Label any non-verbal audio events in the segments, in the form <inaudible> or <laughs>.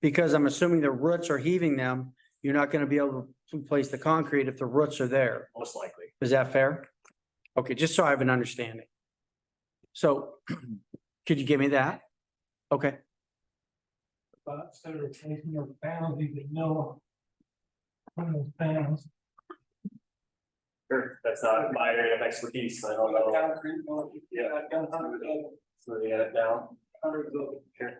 Because I'm assuming the roots are heaving them, you're not gonna be able to place the concrete if the roots are there. most likely. Is that fair? Okay, just so I have an understanding. So <clears throat> could you give me that? Okay, spots that are taking of bounds, you would know. From those bounds. Sure, that's not my area of expertise, I don't know, Concrete, well, you- Yeah. I've done hundreds of, them, so they got it down, hundreds of. them. Sure.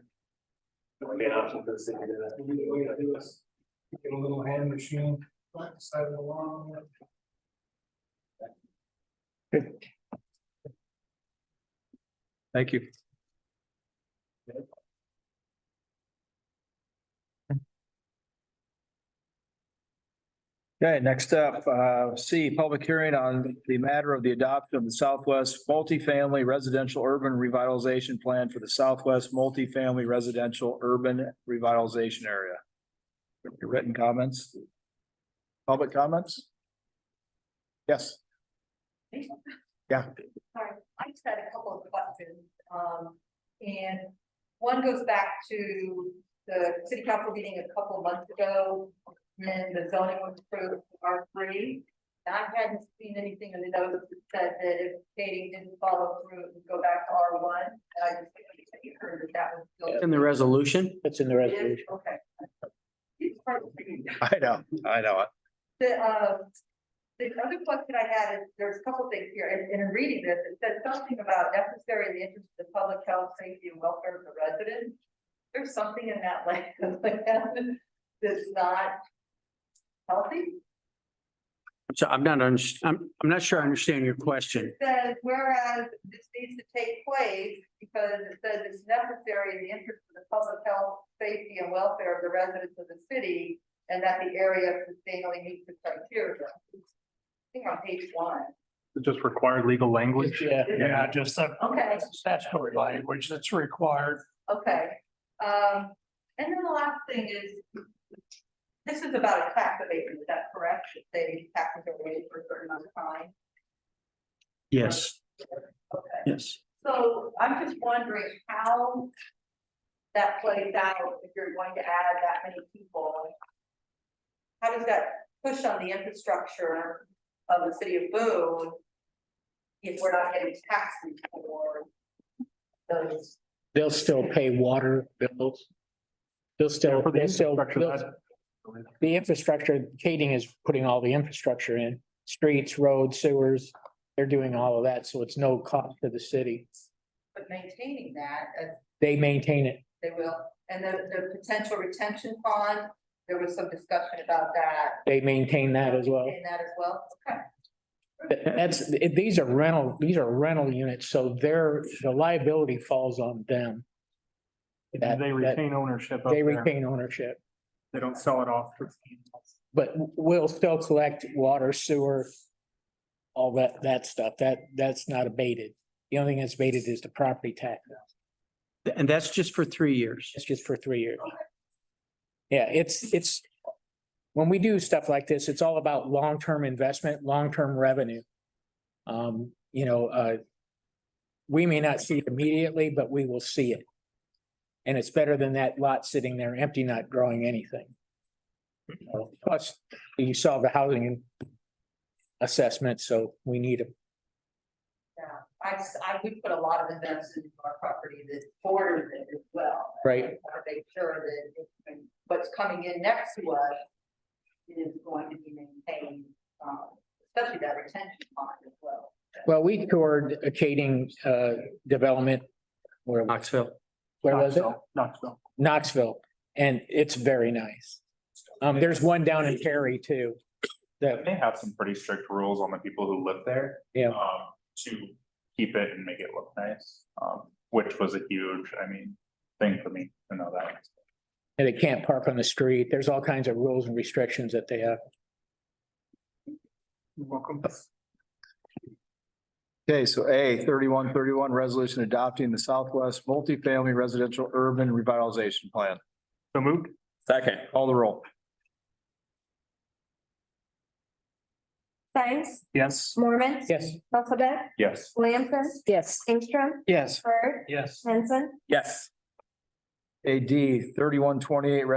that would be an option for the city to do that. Maybe the way to do is Get a little hand machine, like the side of the lawn. Thank you. Okay, next up, uh, C, public hearing on the matter of the adoption of the Southwest Multifamily Residential Urban Revitalization Plan for the Southwest Multifamily Residential Urban Revitalization Area. Written comments? Public comments? Yes. Yeah. Sorry, I just had a couple of questions, um, and one goes back to the city council meeting a couple months ago. When the zoning was approved for R three, and I hadn't seen anything in the notice that said that if Katie didn't follow through, it would go back to R one. And I just heard that that was still. in the resolution? That's in the It is? resolution. Okay. It's hard to figure out. I know, I know it. The, um, the other question I had is, there's a couple things here, and, and in reading this, it said something about necessary in the interest of the public health, safety and welfare of the residents. There's something in that <laughs> land that's not healthy. So I'm not, underst- I'm, I'm not sure I understand your question. It Says whereas this needs to take place because it says it's necessary in the interest of the public health, safety and welfare of the residents of the city. And that the area sustainably meets the criteria. I think on page one. just required legal language. Yeah, Yeah, just that. Okay. Statutory language that's required. Okay, um, and then the last thing is. This is about a tax abatement, is that correct? If They taxes are raised for a certain amount of time, Yes, okay. yes. So I'm just wondering how. That plays out if you're going to add that many people. How does that push on the infrastructure of the city of Boone? If we're not getting taxes for those, they'll still pay water bills. They'll still, For the they'll still, infrastructure, they'll- that- the infrastructure, Kading is putting all the infrastructure in, streets, roads, sewers. They're doing all of that, so it's no cost to the city. but maintaining that uh, as They maintain it. They will, and the, the potential retention pond, there was some discussion about that. They maintain that as well. And that as well, okay. But That's, it- these are rental, these are rental units, so their, the liability falls on them. That- They that- retain ownership of They their, retain ownership, they don't sell it off. for- but we'll still collect water, sewer, all that, that stuff. That, that's not abated. The only thing that's abated is the property tax. And that's just for three years. It's just for three years. Yeah, it's, it's, when we do stuff like this, it's all about long-term investment, long-term revenue. Um, you know, uh, we may not see it immediately, but we will see it. And it's better than that lot sitting there empty, not growing anything. So, Plus, you saw the housing assessment, so we need a Yeah, uh, I, s- I would put a lot of investment into our property that borders it as well. Right. I want to make sure that it- what's coming in next to us is going to be maintained, um, especially that retention pond as well. Well, we toured a Kading uh development. Where, Knoxville. where was it? Knoxville, Knoxville. Knoxville, and it's very nice. Um, there's one down in Terry too. That, They have some pretty strict rules on the people who live there. Yeah. Um, to keep it and make it look nice, um, which was a huge, I mean, thing for me to know that. and they can't park on the street. There's all kinds of rules and restrictions that they have. Welcome. Okay, so A, thirty-one thirty-one, resolution adopting the Southwest Multifamily Residential Urban Revitalization Plan. So moved? Second, Call the roll. Thanks. Yes. Mormon. Yes, Elizabeth. Yes. Williamson. Yes. Ingstrom. Yes. Bird. Yes. Henson. yes. AD thirty-one twenty-eight,